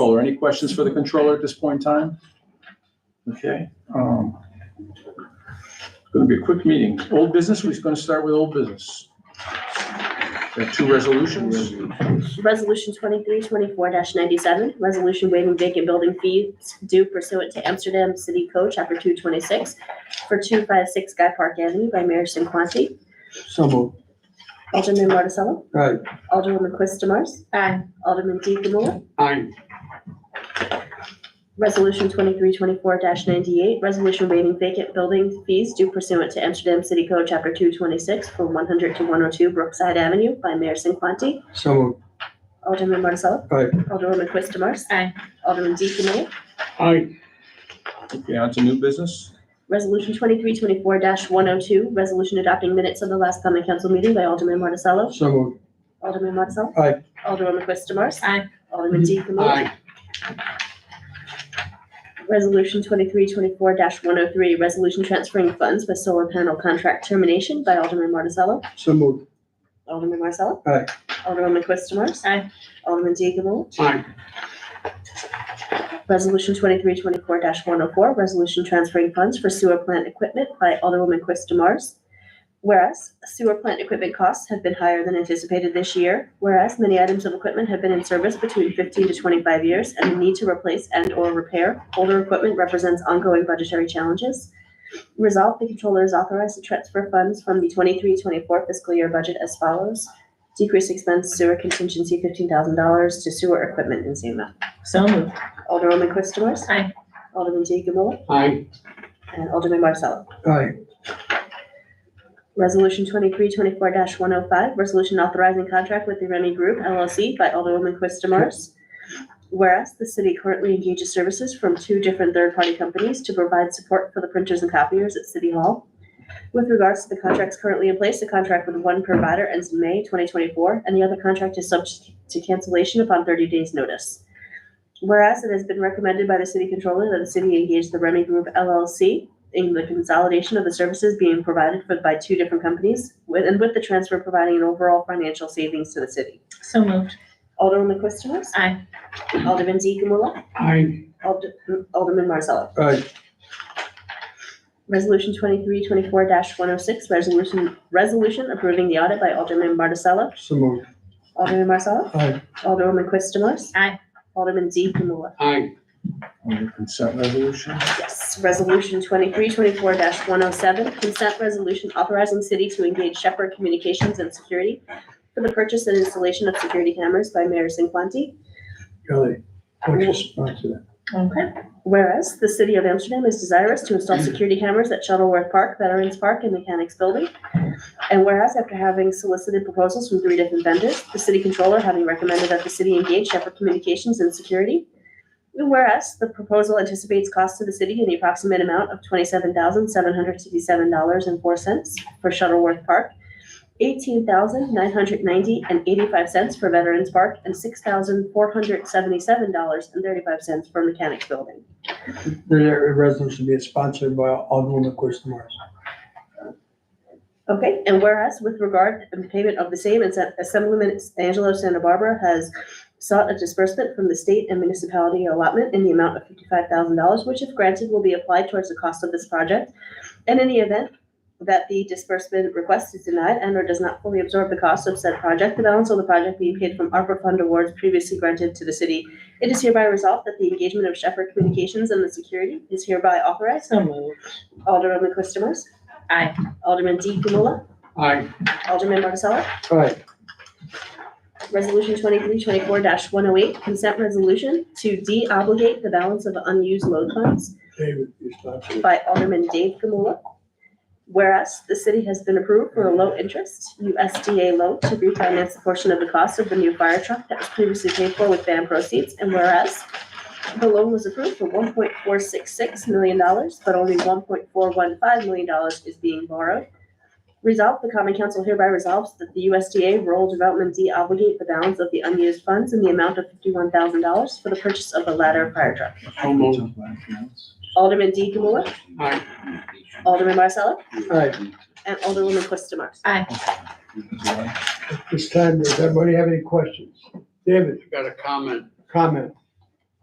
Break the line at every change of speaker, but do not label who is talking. Any questions for the controller at this point in time? Okay. um, It's going to be a quick meeting. Old business, we're going to start with old business. There are two resolutions.
Resolution twenty-three twenty-four ninety-seven, resolution waiving vacant building fees due pursuant to Amsterdam City Code, chapter two twenty-six, for two five six Guy Park Avenue by Mayor Sinquanti.
So moved.
Alderman Marticello?
Aye.
Alderwoman Quist Demars? Aye. Alderman Deaconmore?
Aye.
Resolution twenty-three twenty-four ninety-eight, resolution waiving vacant building fees due pursuant to Amsterdam City Code, chapter two twenty-six, for one hundred to one oh two Brookside Avenue by Mayor Sinquanti.
So moved.
Alderman Marticello?
Aye.
Alderwoman Quist Demars?
Aye.
Alderman Deaconmore?
Aye.
Okay, on to new business.
Resolution twenty-three twenty-four one oh two, resolution adopting minutes of the last common council meeting by Alderman Marticello.
So moved.
Alderman Marticello.
Aye.
Alderwoman Quist Demars.
Aye.
Alderman Deaconmore. Resolution twenty-three twenty-four one oh three, resolution transferring funds with solar panel contract termination by Alderman Marticello.
So moved.
Alderman Marticello.
Aye.
Alderwoman Quist Demars.
Aye.
Alderman Deaconmore.
Aye.
Resolution twenty-three twenty-four one oh four, resolution transferring funds for sewer plant equipment by Alderwoman Quist Demars. Whereas sewer plant equipment costs have been higher than anticipated this year, whereas many items of equipment have been in service between fifteen to twenty-five years and the need to replace and/or repair older equipment represents ongoing budgetary challenges. Resolved, the controller is authorized to transfer funds from the 23-24 fiscal year budget as follows. Decrease expense sewer contingency fifteen thousand dollars to sewer equipment in same amount.
So moved.
Alderwoman Quist Demers.
Aye.
Alderman Jacob Miller
Aye.
and Alderman Marcelo.
Aye.
Resolution twenty-three twenty-four one oh five, resolution authorizing contract with the Remy Group LLC by Alderwoman Quist Demars. Whereas the city currently engages services from two different third-party companies to provide support for the printers and copiers at City Hall. With regards to the contracts currently in place, the contract with one provider ends in May twenty twenty-four, and the other contract is subject to cancellation upon thirty days' notice. Whereas it has been recommended by the city controller that the city engage the Remy Group LLC in the consolidation of the services being provided for, by two different companies, with, and with the transfer providing an overall financial savings to the city.
So moved.
Alderman Quistamos?
Aye.
Alderman Deaconmula?
Aye.
Ald- Alderman Marzella?
Aye.
Resolution twenty-three twenty-four one oh six, resolution, resolution approving the audit by Alderman Marticello.
So moved.
Alderman Marzella?
Aye.
Alderwoman Quistamos?
Aye.
Alderman Deaconmula?
Aye.
On the consent resolution.
Yes, resolution twenty-three twenty-four one oh seven, consent resolution authorizing city to engage Shepherd Communications and Security for the purchase and installation of security cameras by Mayor Sinquanti.
Kelly, what's your response to that?
Okay.
Whereas the city of Amsterdam is desirous to install security cameras at Shuttleworth Park, Veterans Park, and Mechanics Building. And whereas after having solicited proposals from three different vendors, the city controller having recommended that the city engage Shepherd Communications and Security. And whereas the proposal anticipates costs to the city in the approximate amount of twenty-seven thousand seven hundred sixty-seven dollars and four cents for Shuttleworth Park, eighteen thousand nine hundred ninety and eighty-five cents for Veterans Park, and six thousand four hundred seventy-seven dollars and thirty-five cents for Mechanics Building.
The resolution be sponsored by Alderman Quist Morris.
Okay, and whereas with regard to the payment of the same, Assemb- Assemblyman Angelo Santa Barbara has sought a disbursement from the state and municipality allotment in the amount of fifty-five thousand dollars, which if granted will be applied towards the cost of this project. And in the event that the disbursement request is denied and or does not fully absorb the cost of said project, the balance of the project being paid from ARPA fund awards previously granted to the city, it is hereby resolved that the engagement of Shepherd Communications and the security is hereby authorized.
So moved.
Alderman Quistamars.
Aye.
Alderman D. Camilla.
Aye.
Alderman Marticello.
Aye.
Resolution twenty-three twenty-four one oh eight, consent resolution to de-obligate the balance of unused load funds
David, your response.
by Alderman Dave Gamula. Whereas the city has been approved for a low-interest USDA loan to refinance a portion of the cost of the new fire truck that was previously paid for with van proceeds. And whereas the loan was approved for one point four six six million dollars, but only one point four one five million dollars is being borrowed. Resolved, the common council hereby resolves that the USDA rural development de-obligate the balance of the unused funds in the amount of fifty-one thousand dollars for the purchase of the latter fire truck.
So moved.
Alderman D. Gamula,
Aye.
Alderman Marcelo,
Aye.
and Alderwoman Quistamars.
This time, does everybody have any questions? David?
got a comment.
Comment.